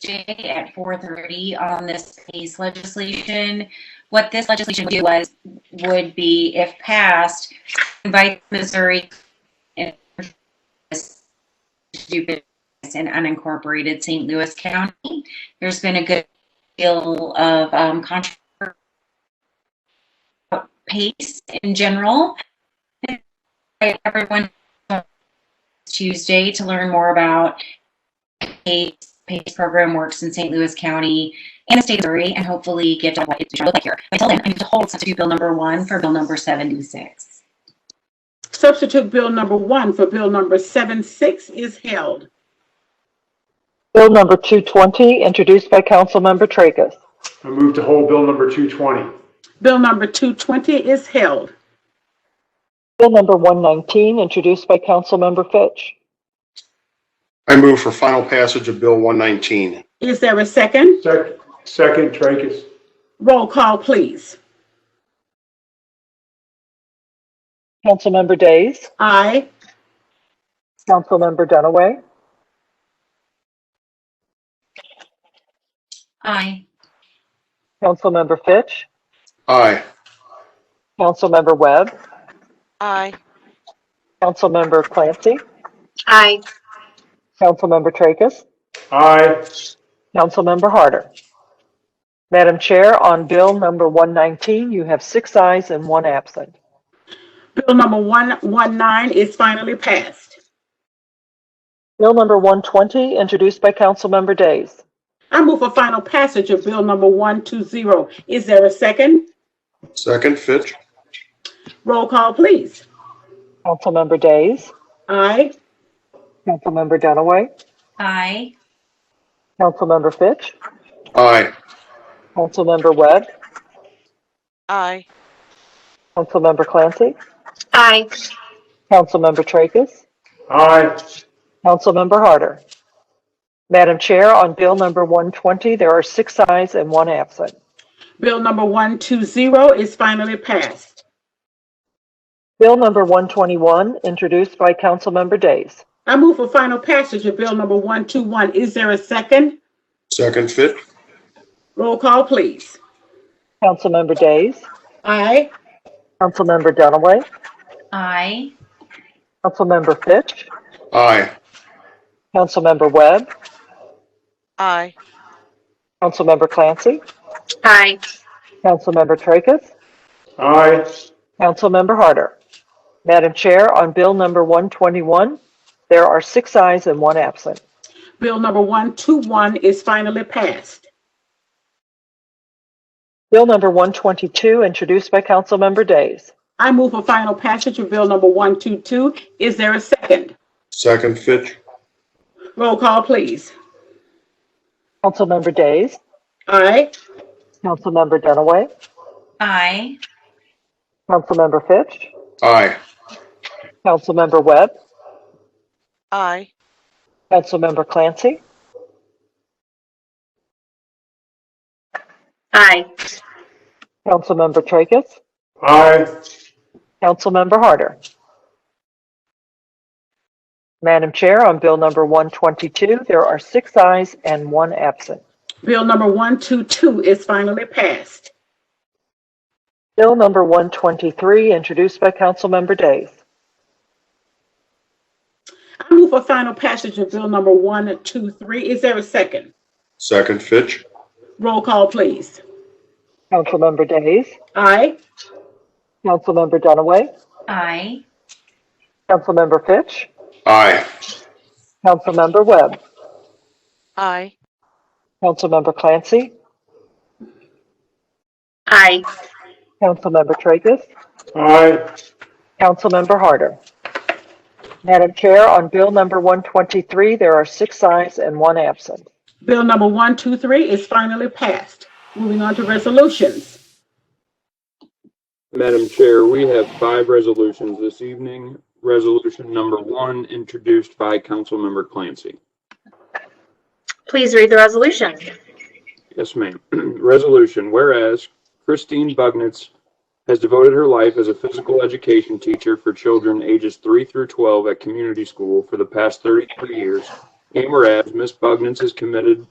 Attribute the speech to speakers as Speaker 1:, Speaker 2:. Speaker 1: Tuesday at 4:30 on this PACE legislation. What this legislation would do was, would be, if passed, invite Missouri and do business in unincorporated St. Louis County. There's been a good deal of um, controversy about PACE in general. And I- Everyone Tuesday to learn more about PACE, PACE program works in St. Louis County and the state of Missouri, and hopefully get to what it should look like here. Until then, I need to hold substitute bill number one for bill number 76.
Speaker 2: Substitute Bill Number 1 for Bill Number 76 is held.
Speaker 3: Bill number 220, introduced by Councilmember Tracus.
Speaker 4: I move to hold Bill number 220.
Speaker 2: Bill Number 220 is held.
Speaker 3: Bill number 119, introduced by Councilmember Fitch.
Speaker 5: I move for final passage of Bill 119.
Speaker 2: Is there a second?
Speaker 4: Sec- Second, Tracus.
Speaker 2: Roll call, please.
Speaker 3: Councilmember Days,
Speaker 2: Aye.
Speaker 3: Councilmember Dunaway,
Speaker 1: Aye.
Speaker 3: Councilmember Fitch,
Speaker 5: Aye.
Speaker 3: Councilmember Webb,
Speaker 6: Aye.
Speaker 3: Councilmember Clancy,
Speaker 6: Aye.
Speaker 3: Councilmember Tracus,
Speaker 4: Aye.
Speaker 3: Councilmember Harder. Madam Chair, on Bill number 119, you have six ayes and one absent.
Speaker 2: Bill Number 119 is finally passed.
Speaker 3: Bill number 120, introduced by Councilmember Days.
Speaker 2: I move for final passage of Bill Number 120. Is there a second?
Speaker 5: Second, Fitch.
Speaker 2: Roll call, please.
Speaker 3: Councilmember Days,
Speaker 2: Aye.
Speaker 3: Councilmember Dunaway,
Speaker 1: Aye.
Speaker 3: Councilmember Fitch,
Speaker 5: Aye.
Speaker 3: Councilmember Webb,
Speaker 6: Aye.
Speaker 3: Councilmember Clancy,
Speaker 6: Aye.
Speaker 3: Councilmember Tracus,
Speaker 4: Aye.
Speaker 3: Councilmember Harder. Madam Chair, on Bill number 120, there are six ayes and one absent.
Speaker 2: Bill Number 120 is finally passed.
Speaker 3: Bill number 121, introduced by Councilmember Days.
Speaker 2: I move for final passage of Bill Number 121. Is there a second?
Speaker 5: Second, Fitch.
Speaker 2: Roll call, please.
Speaker 3: Councilmember Days,
Speaker 2: Aye.
Speaker 3: Councilmember Dunaway,
Speaker 1: Aye.
Speaker 3: Councilmember Fitch,
Speaker 5: Aye.
Speaker 3: Councilmember Webb,
Speaker 6: Aye.
Speaker 3: Councilmember Clancy,
Speaker 6: Aye.
Speaker 3: Councilmember Tracus,
Speaker 4: Aye.
Speaker 3: Councilmember Harder. Madam Chair, on Bill number 121, there are six ayes and one absent.
Speaker 2: Bill number 121 is finally passed.
Speaker 3: Bill number 122, introduced by Councilmember Days.
Speaker 2: I move for final passage of Bill number 122. Is there a second?
Speaker 5: Second, Fitch.
Speaker 2: Roll call, please.
Speaker 3: Councilmember Days,
Speaker 2: Aye.
Speaker 3: Councilmember Dunaway,
Speaker 1: Aye.
Speaker 3: Councilmember Fitch,
Speaker 5: Aye.
Speaker 3: Councilmember Webb,
Speaker 6: Aye.
Speaker 3: Councilmember Clancy,
Speaker 6: Aye.
Speaker 3: Councilmember Tracus,
Speaker 4: Aye.
Speaker 3: Councilmember Harder. Madam Chair, on Bill number 122, there are six ayes and one absent.
Speaker 2: Bill number 122 is finally passed.
Speaker 3: Bill number 123, introduced by Councilmember Days.
Speaker 2: I move for final passage of Bill number 123. Is there a second?
Speaker 5: Second, Fitch.
Speaker 2: Roll call, please.
Speaker 3: Councilmember Days,
Speaker 2: Aye.
Speaker 3: Councilmember Dunaway,
Speaker 1: Aye.
Speaker 3: Councilmember Fitch,
Speaker 5: Aye.
Speaker 3: Councilmember Webb,
Speaker 6: Aye.
Speaker 3: Councilmember Clancy,
Speaker 6: Aye.
Speaker 3: Councilmember Tracus,
Speaker 4: Aye.
Speaker 3: Councilmember Harder. Madam Chair, on Bill number 123, there are six ayes and one absent.
Speaker 2: Bill number 123 is finally passed. Moving on to resolutions.
Speaker 7: Madam Chair, we have five resolutions this evening. Resolution number one, introduced by Councilmember Clancy.
Speaker 8: Please read the resolution.
Speaker 7: Yes, ma'am. Resolution, whereas Christine Bugnitz has devoted her life as a physical education teacher for children ages three through 12 at community school for the past 33 years. And whereas Ms. Bugnitz is committed